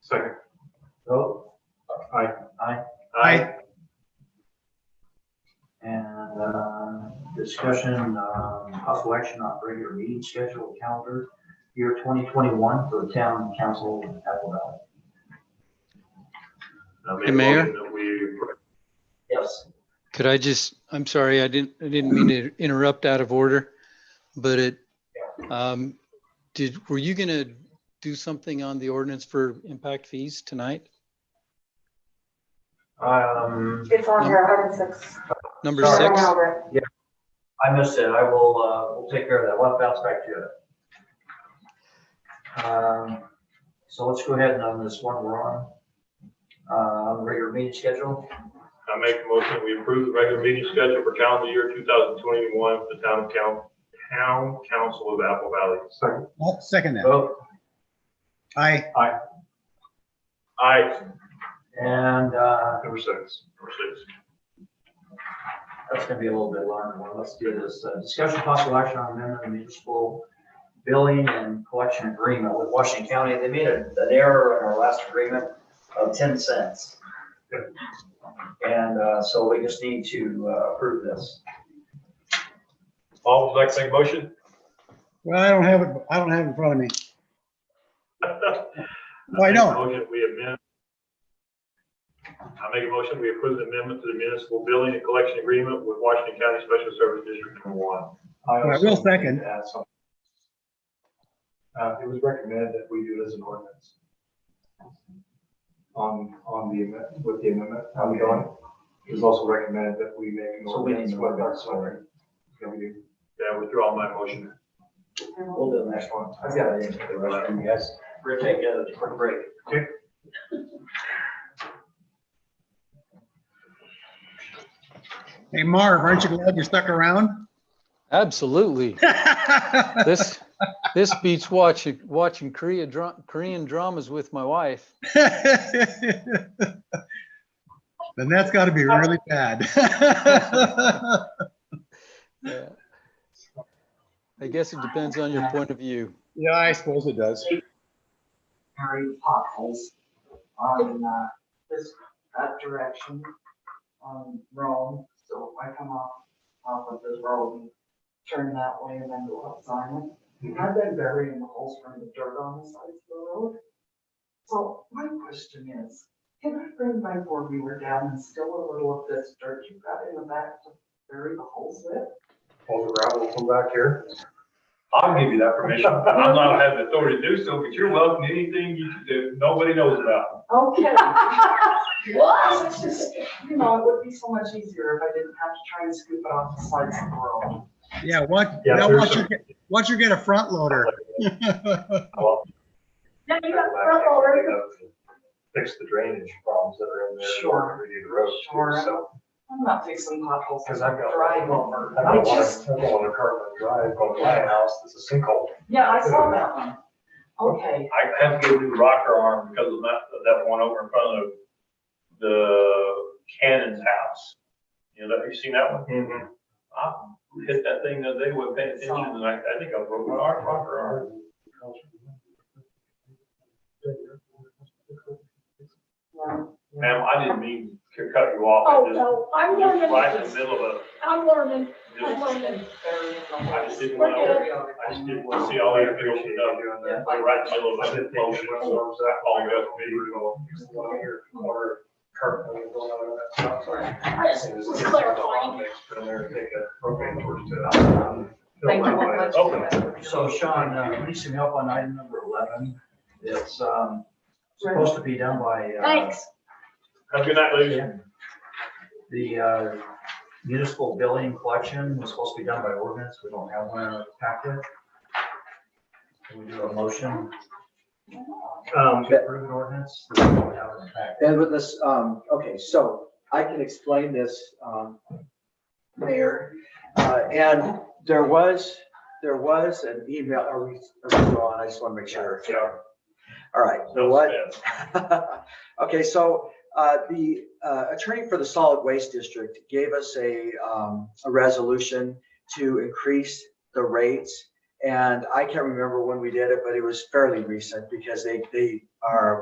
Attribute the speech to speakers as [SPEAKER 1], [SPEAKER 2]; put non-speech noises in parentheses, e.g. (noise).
[SPEAKER 1] Second.
[SPEAKER 2] Vote,
[SPEAKER 1] Aye.
[SPEAKER 2] aye,
[SPEAKER 1] Aye.
[SPEAKER 2] and, uh, discussion, um, possible action on regular meeting schedule calendar, year twenty twenty-one for town council in Apple Valley.
[SPEAKER 1] I'll make
[SPEAKER 3] Hey,
[SPEAKER 1] a
[SPEAKER 3] Mayor?
[SPEAKER 1] motion that we-
[SPEAKER 2] Yes.
[SPEAKER 3] Could I just, I'm sorry, I didn't, I didn't mean to interrupt out of order, but it, um, did, were you gonna do something on the ordinance for impact fees tonight?
[SPEAKER 2] Um,
[SPEAKER 4] It's on here, 106.
[SPEAKER 3] Number
[SPEAKER 2] Sorry.
[SPEAKER 3] six?
[SPEAKER 2] I missed it. I will, uh, we'll take care of that. We'll bounce back to it. Um, so let's go ahead and on this one we're on, uh, regular meeting schedule.
[SPEAKER 1] I make a motion that we approve the regular meeting schedule for calendar year 2021 for the town council, town council of Apple Valley. Second.
[SPEAKER 5] I'll second that.
[SPEAKER 2] Vote,
[SPEAKER 5] Aye.
[SPEAKER 1] Aye,
[SPEAKER 2] and, uh,
[SPEAKER 1] number six, number six.
[SPEAKER 2] that's gonna be a little bit longer one. Let's do this. Uh, Discussion possible action on amendment of municipal billing and collection agreement with Washington County. They made a- an error in our last agreement of ten cents. And, uh, so we just need to uh, approve this.
[SPEAKER 1] Paul, would you like to make a motion?
[SPEAKER 5] Well, I don't have it, I don't have it in front of me. Well, I
[SPEAKER 1] make a
[SPEAKER 5] don't.
[SPEAKER 1] Motion, we amend. I make a motion, we approve the amendment to the municipal billing and collection agreement with Washington County Special Service District Number One.
[SPEAKER 5] I will second.
[SPEAKER 6] Uh, it was recommended that we do it as an ordinance. On, on the, amend- with the amendment, how we going? It was also recommended that we make an
[SPEAKER 2] So we
[SPEAKER 6] ordinance
[SPEAKER 2] need to
[SPEAKER 6] with
[SPEAKER 2] work on
[SPEAKER 6] that,
[SPEAKER 2] it, sorry.
[SPEAKER 6] sorry. Yeah, we do.
[SPEAKER 1] Yeah, withdraw my motion.
[SPEAKER 2] We'll do the next one. I've got it in for the rest of you guys. We're gonna take a quick break.
[SPEAKER 6] Okay.
[SPEAKER 5] Hey, Marv, aren't you glad you stuck around? (laughs)
[SPEAKER 3] Absolutely. This, this beats watching, watching Korea dra- Korean dramas with my wife.
[SPEAKER 5] Then that's gotta be really bad. (laughs)
[SPEAKER 3] Yeah. Uh, I guess it depends on your point of view.
[SPEAKER 5] Yeah, I suppose it does.
[SPEAKER 7] Harry potholes on, uh, this, that direction, on Rome, so if I come off, off of this road and turn that way and then go up Simon, I've been burying the holes from the dirt on the sides of the road. So my question is, can I bring my four wheeler down and still a little of this dirt you got in the back to bury the holes with?
[SPEAKER 6] All the gravel from back here.
[SPEAKER 1] I'll give you that permission. I'm not having authority to do so, but you're welcome to anything you, that nobody knows about.
[SPEAKER 7] Okay. (laughs) What? It's just, You know, it would be so much easier if I didn't have to try and scoop it off the sides of the road.
[SPEAKER 5] Yeah, once,
[SPEAKER 6] Yeah,
[SPEAKER 5] now
[SPEAKER 6] there's
[SPEAKER 5] once
[SPEAKER 6] some-
[SPEAKER 5] you, get- once you get a front loader.
[SPEAKER 6] Well,
[SPEAKER 4] Yeah, you got the front loader.
[SPEAKER 6] Fix the drainage problems that are in there.
[SPEAKER 7] Sure.
[SPEAKER 6] We need the road. too,
[SPEAKER 7] Sure.
[SPEAKER 6] so-
[SPEAKER 7] I'm not fixing potholes
[SPEAKER 6] Cause
[SPEAKER 7] as
[SPEAKER 6] I've
[SPEAKER 7] I
[SPEAKER 6] got.
[SPEAKER 7] drive over.
[SPEAKER 6] I
[SPEAKER 7] I
[SPEAKER 6] don't want
[SPEAKER 7] just,
[SPEAKER 6] to, I don't want to curb and drive on my house, That's a sinkhole.
[SPEAKER 7] yeah, I saw that one. Okay,
[SPEAKER 1] I have to go do rocker arm because of that, of that one over in front of the Cannon's house. You know, have you seen that one? I hit that thing the other day, wasn't paying attention, and I, I think I broke my arm, rocker arm.
[SPEAKER 7] yeah,
[SPEAKER 1] Ma'am, I didn't mean to cut you off.
[SPEAKER 8] Oh, no,
[SPEAKER 1] I
[SPEAKER 8] I'm
[SPEAKER 1] just- just Right in the
[SPEAKER 8] learning,
[SPEAKER 1] middle of,
[SPEAKER 8] I'm learning, I'm
[SPEAKER 1] just,
[SPEAKER 8] learning.
[SPEAKER 1] I just didn't
[SPEAKER 8] We're
[SPEAKER 1] want
[SPEAKER 8] good.
[SPEAKER 1] to, I just didn't want to see all that opened up. Right in the middle of a motion, so that all you have to be.
[SPEAKER 8] I just was clarifying.
[SPEAKER 7] Thank you very much.
[SPEAKER 1] Oh.
[SPEAKER 2] So Sean, uh, we need some help on item number eleven. It's, um, supposed to be done by, uh,
[SPEAKER 8] Thanks.
[SPEAKER 1] Have a good night, ladies.
[SPEAKER 2] the, uh, municipal billing collection was supposed to be done by ordinance. We don't have one in our packet. Can we do a motion
[SPEAKER 6] Um,
[SPEAKER 2] to approve an ordinance? We don't have it in the packet.
[SPEAKER 9] And with this, um, okay, so I can explain this, um, Mayor. Uh, and there was, there was an email, are we, are we on? I just want to make sure.
[SPEAKER 1] Yeah.
[SPEAKER 9] All right, so what? (laughs) Okay, so, uh, the, uh, attorney for the solid waste district gave us a, um, a resolution to increase the rates. And I can't remember when we did it, but it was fairly recent because they, they are